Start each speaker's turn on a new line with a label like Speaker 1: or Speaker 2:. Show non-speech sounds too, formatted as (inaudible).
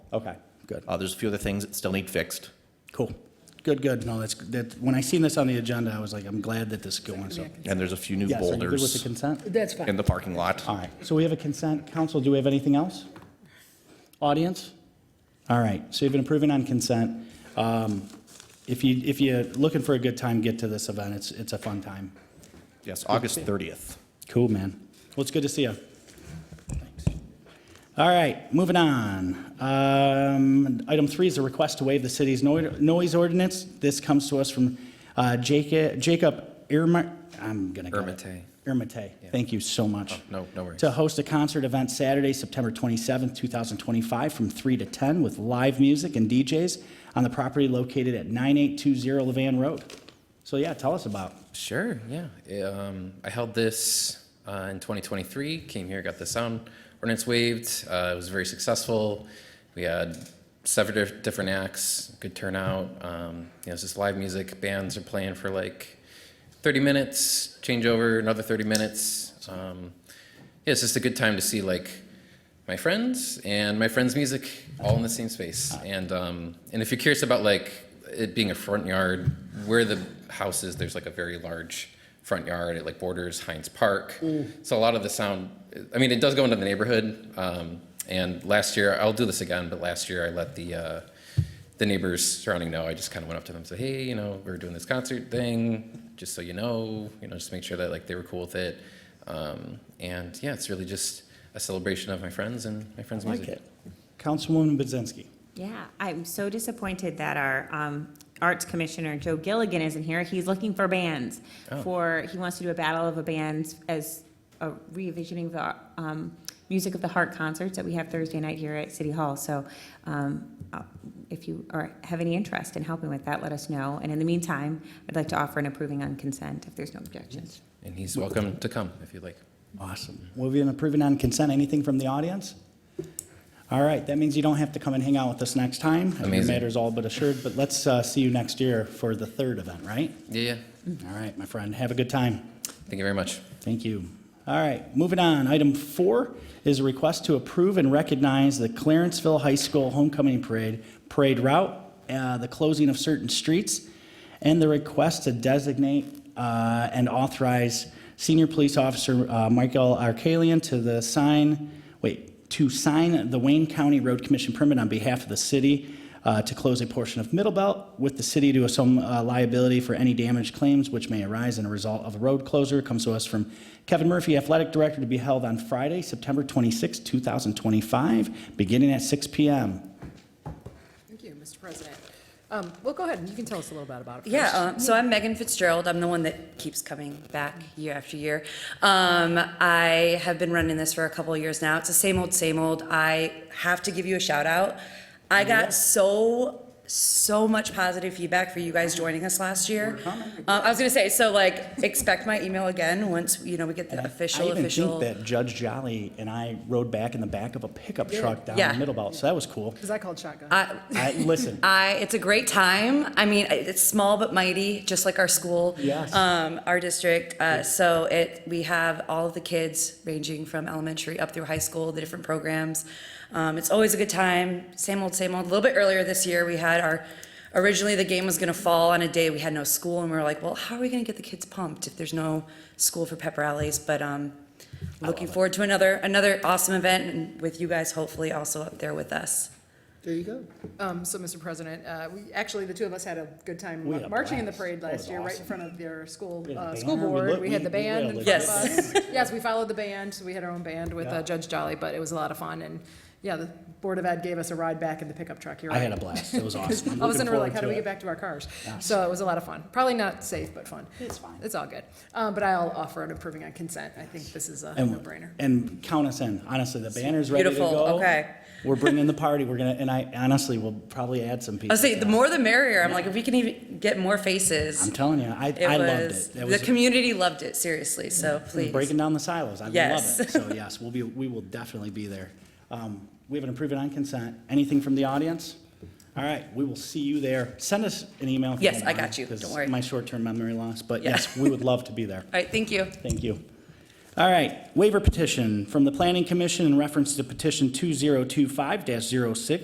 Speaker 1: Okay, good.
Speaker 2: Uh, There's a few other things that still need fixed.
Speaker 1: Cool. Good, good. No, that's, that, when I seen this on the agenda, I was like, I'm glad that this is going, so.
Speaker 2: And there's a few new
Speaker 1: Yes, are you good with the Uh,
Speaker 2: boulders
Speaker 1: consent?
Speaker 3: That's
Speaker 2: in
Speaker 3: fine.
Speaker 2: the parking lot.
Speaker 1: All right, so we have a consent. Council, do we have anything else? Audience? All right, so you've been approving on consent. Um, If you, if you're looking for a good time, get to this event. It's, it's a fun time.
Speaker 2: Yes, August 30th.
Speaker 1: Cool, man. Well, it's good to see you. All right, moving on. Um, Item three is a request to waive the city's noi- noise ordinance. This comes to us from uh, Jacob Jacob Irma, I'm gonna. get it.
Speaker 2: Ermite.
Speaker 1: Ermite, thank you so much.
Speaker 2: Oh, no- no worries.
Speaker 1: To host a concert event Saturday, September 27th, 2025, from 3 to 10 with live music and DJs on the property located at 9820 Levan Road. So yeah, tell us about.
Speaker 4: Sure, yeah. I- Um, I held this uh, in 2023, came here, got the sound ordinance waived. Uh, it was very successful. We had seven dif- different acts, good turnout. Um, you know, it's just live music. Bands are playing for like 30 minutes, changeover, another 30 minutes. Um, yeah, it's just a good time to see like my friends and my friends' music all in the same space. And um, and if you're curious about like it being a front yard, where the house is, there's like a very large front yard. It like borders Heinz Park. So a lot of the sound, I mean, it does go into the neighborhood. Um, and last year, I'll do this again, but last year I let the uh, the neighbors surrounding know, I just kind of went up to them and said, hey, you know, we're doing this concert thing, just so you know, you know, just make sure that like they were cool with it. Um, and yeah, it's really just a celebration of my friends and my friends'
Speaker 1: Like
Speaker 4: music.
Speaker 1: it. Councilwoman Budzinski.
Speaker 5: Yeah, I'm so disappointed that our um, Arts Commissioner, Joe Gilligan, isn't here. He's looking for bands for, he wants to do a battle of the bands as a revisioning the um, Music of the Heart concerts that we have Thursday night here at City Hall. So um, uh, if you are, have any interest in helping with that, let us know. And in the meantime, I'd like to offer an approving on consent if there's no objections.
Speaker 4: And he's welcome to come if you'd like.
Speaker 1: Awesome. Well, we've been approving on consent. Anything from the audience? All right, that means you don't have to come and hang out with us next time. Your
Speaker 4: Amazing.
Speaker 1: matter's all but assured, but let's uh, see you next year for the third event, right?
Speaker 4: Yeah, yeah.
Speaker 1: All right, my friend, have a good time.
Speaker 4: Thank you very much.
Speaker 1: Thank you. All right, moving on. Item four is a request to approve and recognize the Clarenceville High School Homecoming Parade, parade route, uh, the closing of certain streets, and the request to designate uh, and authorize Senior Police Officer uh, Michael Arcalian to the sign, wait, to sign the Wayne County Road Commission permit on behalf of the city uh, to close a portion of Middle Belt with the city to assume uh, liability for any damage claims which may arise in a result of a road closure comes to us from Kevin Murphy, Athletic Director, to be held on Friday, September 26, 2025, beginning at 6 p.m.
Speaker 6: Thank you, Mr. President. Um, Well, go ahead, and you can tell us a little bit about it first.
Speaker 7: Yeah, um, so I'm Megan Fitzgerald. I'm the one that keeps coming back year after year. Um, I have been running this for a couple of years now. It's the same old, same old. I have to give you a shout out. I got so so much positive feedback for you guys joining us last year. Uh, I was gonna say, so like, expect my email again once you know we get the
Speaker 1: I
Speaker 7: official
Speaker 1: even
Speaker 7: official.
Speaker 1: think that Judge Jolly and I rode back in the back of a pickup truck down
Speaker 7: Yeah.
Speaker 1: Middle Belt, so that was cool.
Speaker 6: Because I called shotgun.
Speaker 7: I,
Speaker 1: I,
Speaker 7: (laughs)
Speaker 1: listen,
Speaker 7: I, it's a great time. I mean, it- it's small but mighty, just like our school.
Speaker 1: Yes.
Speaker 7: Um, our district. Uh, so it, we have all of the kids ranging from elementary up through high school, the different programs. Um, it's always a good time. Same old, same old. A little bit earlier this year, we had our, originally the game was going to fall on a day we had no school, and we were like, well, how are we going to get the kids pumped if there's no school for pep rallies? But, um, looking forward to another, another awesome event and with you guys, hopefully also up there with us.
Speaker 3: There you go.
Speaker 6: Um, So, Mr. President, uh, we, actually, the two of us had a good time
Speaker 1: We had a
Speaker 6: marching in the
Speaker 1: blast.
Speaker 6: parade
Speaker 1: That was
Speaker 6: last year, right in
Speaker 1: awesome.
Speaker 6: front of their school,
Speaker 1: We had a
Speaker 6: uh, school
Speaker 1: banner. We
Speaker 6: board.
Speaker 1: looked-
Speaker 6: We had
Speaker 1: we-
Speaker 6: the
Speaker 1: we had
Speaker 6: band
Speaker 1: a
Speaker 6: in front of
Speaker 7: legit-
Speaker 6: us. Yes, we followed the band, so we had our own band with uh, Judge Jolly, but it was a lot of fun. And, yeah, the Board of Ed gave us a ride back in the pickup truck. You're
Speaker 1: I
Speaker 6: right. (laughs)
Speaker 1: had a blast. It was awesome. I'm
Speaker 6: All of a
Speaker 1: looking
Speaker 6: sudden, we're like,
Speaker 1: forward
Speaker 6: how
Speaker 1: to
Speaker 6: do we
Speaker 1: it.
Speaker 6: get back to our cars? So it was a lot of fun. Probably not safe, but fun.
Speaker 1: It's fine.
Speaker 6: It's all good. Um, But I'll offer an approving on consent. I think this is a
Speaker 1: And-
Speaker 6: no-brainer.
Speaker 1: And count us in, honestly, the banner's ready to go.
Speaker 7: Beautiful, okay.
Speaker 1: We're bringing the party, we're gonna, and I honestly will probably add some people.
Speaker 7: I was like, Oh, the more the merrier. I'm like, if we can even get more faces.
Speaker 1: I'm telling you, I,
Speaker 7: it
Speaker 1: I loved
Speaker 7: was,
Speaker 1: it. That
Speaker 7: the
Speaker 1: was
Speaker 7: community loved it seriously. So please,
Speaker 1: breaking down the silos, I love it.
Speaker 7: Yes.
Speaker 1: So yes, we'll be, we will definitely be there. Um, we have an approved on consent. Anything from the audience? All right, we will see you there. Send us an email. if you
Speaker 7: Yes,
Speaker 1: don't
Speaker 7: I got
Speaker 1: mind,
Speaker 7: you.
Speaker 1: 'cause
Speaker 7: Don't worry.
Speaker 1: My short-term memory loss, but
Speaker 7: Yeah.
Speaker 1: yes, we would love to be there.
Speaker 7: all right, thank you.
Speaker 1: Thank you. All right, waiver petition from the Planning Commission in reference to petition 2025-06